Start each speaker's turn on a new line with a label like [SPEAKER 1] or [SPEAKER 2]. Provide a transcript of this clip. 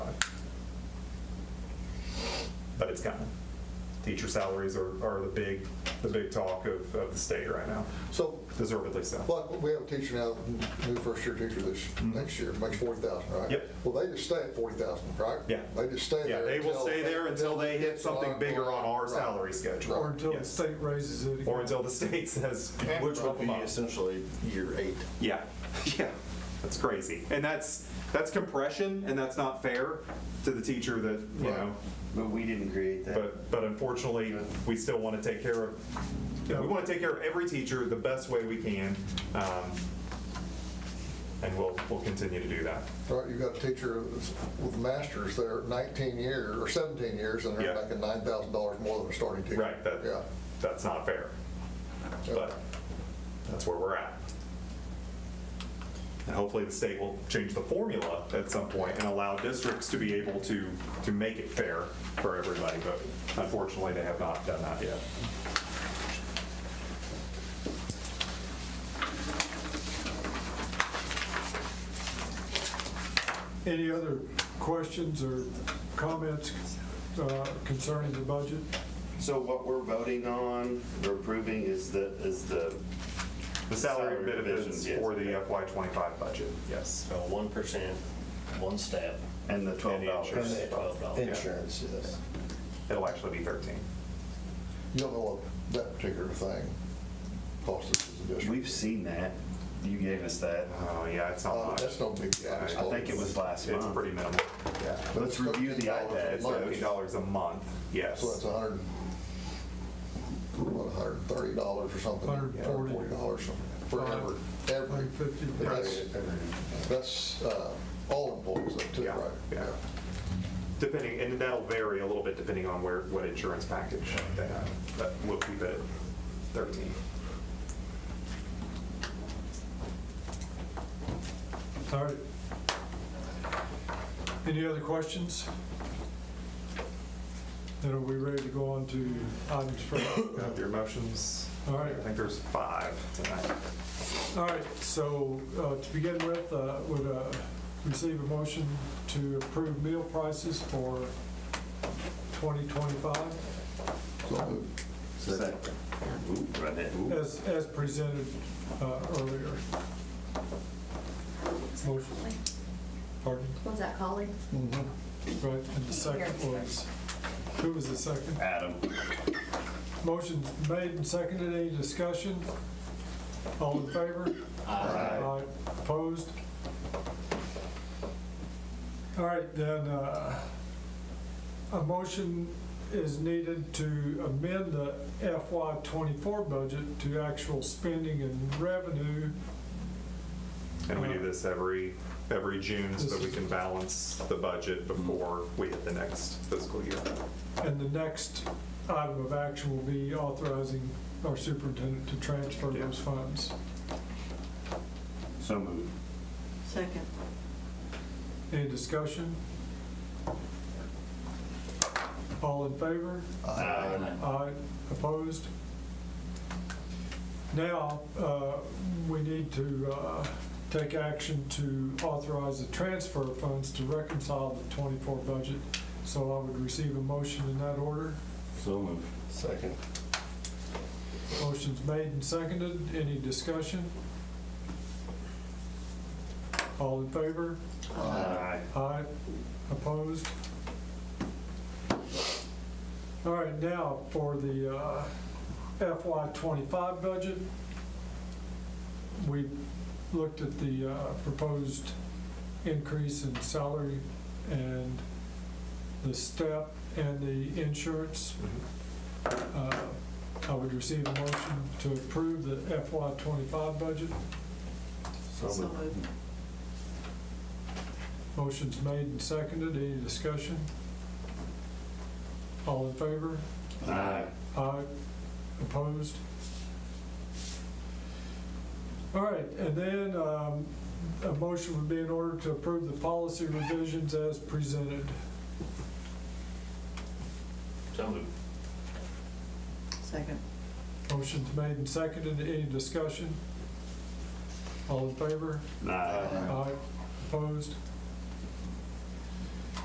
[SPEAKER 1] it's coming. Teacher salaries are, are the big, the big talk of, of the state right now,
[SPEAKER 2] So,
[SPEAKER 1] deservedly so.
[SPEAKER 2] like, we have a teacher now, new first-year teacher this, next year, makes forty thousand, right?
[SPEAKER 1] Mm-hmm. Yep.
[SPEAKER 2] Well, they just stay at forty thousand, right?
[SPEAKER 1] Yeah.
[SPEAKER 2] They just stay
[SPEAKER 1] Yeah,
[SPEAKER 2] there.
[SPEAKER 1] they will
[SPEAKER 2] until-
[SPEAKER 1] stay there until they hit something bigger on our
[SPEAKER 2] Right.
[SPEAKER 1] salary schedule.
[SPEAKER 3] Or until the
[SPEAKER 1] Yes.
[SPEAKER 3] state raises it.
[SPEAKER 1] Or
[SPEAKER 3] again.
[SPEAKER 1] until the state says, which
[SPEAKER 4] Which
[SPEAKER 1] will
[SPEAKER 4] would
[SPEAKER 1] be
[SPEAKER 4] be essentially year eight.
[SPEAKER 1] Yeah, yeah, that's crazy, and that's that's compression, and that's not fair to the teacher that you know.
[SPEAKER 4] But we didn't create that.
[SPEAKER 1] But but unfortunately, we still want to take care of. We want to take care of every teacher the best way we can, um, and we'll we'll continue to do that.
[SPEAKER 2] Right, you've got a teacher that's- with masters there nineteen years, or seventeen years, and they're
[SPEAKER 1] Yeah.
[SPEAKER 2] making nine thousand dollars more than a starting teacher.
[SPEAKER 1] Right. That
[SPEAKER 2] Yeah.
[SPEAKER 1] that's not fair,
[SPEAKER 2] Yeah.
[SPEAKER 1] but that's where we're at. And hopefully, the state will change the formula at some point and allow districts to be able to to make it fair for everybody. But unfortunately, they have not done that yet.
[SPEAKER 3] Any other questions or comments uh, concerning the budget?
[SPEAKER 4] So what we're voting on or approving is the, is the
[SPEAKER 1] The salary
[SPEAKER 4] Salary
[SPEAKER 1] benefits
[SPEAKER 4] revisions, yes,
[SPEAKER 1] for the FY25 budget, yes.
[SPEAKER 5] So one percent, one step.
[SPEAKER 4] And the
[SPEAKER 1] And the
[SPEAKER 4] $12.
[SPEAKER 1] insurance.
[SPEAKER 5] Twelve dollars.
[SPEAKER 4] insurance, yes.
[SPEAKER 1] It'll actually be 13.
[SPEAKER 2] You don't know what that particular thing costs us as a district.
[SPEAKER 4] We've seen that. You gave us that.
[SPEAKER 1] Oh, yeah, it's not
[SPEAKER 2] Uh,
[SPEAKER 1] much.
[SPEAKER 2] That's no big deal.
[SPEAKER 1] I
[SPEAKER 4] I think it was last
[SPEAKER 1] It's
[SPEAKER 4] month.
[SPEAKER 1] pretty minimal.
[SPEAKER 2] Yeah.
[SPEAKER 4] Let's review the
[SPEAKER 2] $13 a
[SPEAKER 4] iPad.
[SPEAKER 1] It's
[SPEAKER 4] Much.
[SPEAKER 2] month.
[SPEAKER 1] $13 a month,
[SPEAKER 2] So that's
[SPEAKER 1] yes.
[SPEAKER 2] a hundred, what, a hundred and thirty dollars or something?
[SPEAKER 3] Hundred and forty.
[SPEAKER 2] dollars for every, every.
[SPEAKER 3] Hundred and fifty.
[SPEAKER 2] but that's- That's, uh, all employees up to,
[SPEAKER 1] Yeah,
[SPEAKER 2] right?
[SPEAKER 1] yeah. Depending, and that'll vary a little bit depending on where, what insurance package they have, but we'll keep it at 13.
[SPEAKER 3] All right. Any other questions? Then are we ready to go on to items for,
[SPEAKER 1] Got your motions?
[SPEAKER 3] all right.
[SPEAKER 1] I think there's five tonight.
[SPEAKER 3] All right, so uh, to begin with, uh, would uh, receive a motion to approve meal prices for 2025
[SPEAKER 2] So moved.
[SPEAKER 4] Second. Ooh, right there. Ooh.
[SPEAKER 3] as, as presented uh, earlier. Motion. Pardon?
[SPEAKER 6] Was that calling?
[SPEAKER 3] Right, and the second was, who was the second?
[SPEAKER 4] Adam.
[SPEAKER 3] Motion's made and seconded, any discussion? All in favor? Aye. Opposed? All right, then, uh, a motion is needed to amend the FY '24 budget to actual spending and revenue.
[SPEAKER 1] And we do this every, every June so that we can balance the budget before we hit the next fiscal year.
[SPEAKER 3] And the next item of action will be authorizing our superintendent to transfer those funds.
[SPEAKER 4] So moved.
[SPEAKER 7] Second.
[SPEAKER 3] Any discussion? All in favor?
[SPEAKER 4] Aye.
[SPEAKER 3] Aye. Opposed? Now, uh, we need to uh, take action to authorize the transfer of funds to reconcile the '24 budget. So I would receive a motion in that order.
[SPEAKER 4] So moved. Second.
[SPEAKER 3] Motion's made and seconded. Any discussion? All in favor?
[SPEAKER 4] Uh,
[SPEAKER 2] uh,
[SPEAKER 4] Aye.
[SPEAKER 3] Aye. Opposed? All right, now for the uh, FY '25 budget. We looked at the uh, proposed increase in salary and the step and the insurance. Uh, I would receive a motion to approve the FY '25 budget.
[SPEAKER 7] So moved.
[SPEAKER 3] Motion's made and seconded. Any discussion? All in favor?
[SPEAKER 4] Aye.
[SPEAKER 3] Aye. Opposed? All right, and then um, a motion would be in order to approve the policy revisions as presented.
[SPEAKER 5] So moved.
[SPEAKER 7] Second.
[SPEAKER 3] Motion's made and seconded. Any discussion? All in favor?
[SPEAKER 4] Aye.
[SPEAKER 3] Aye. Opposed?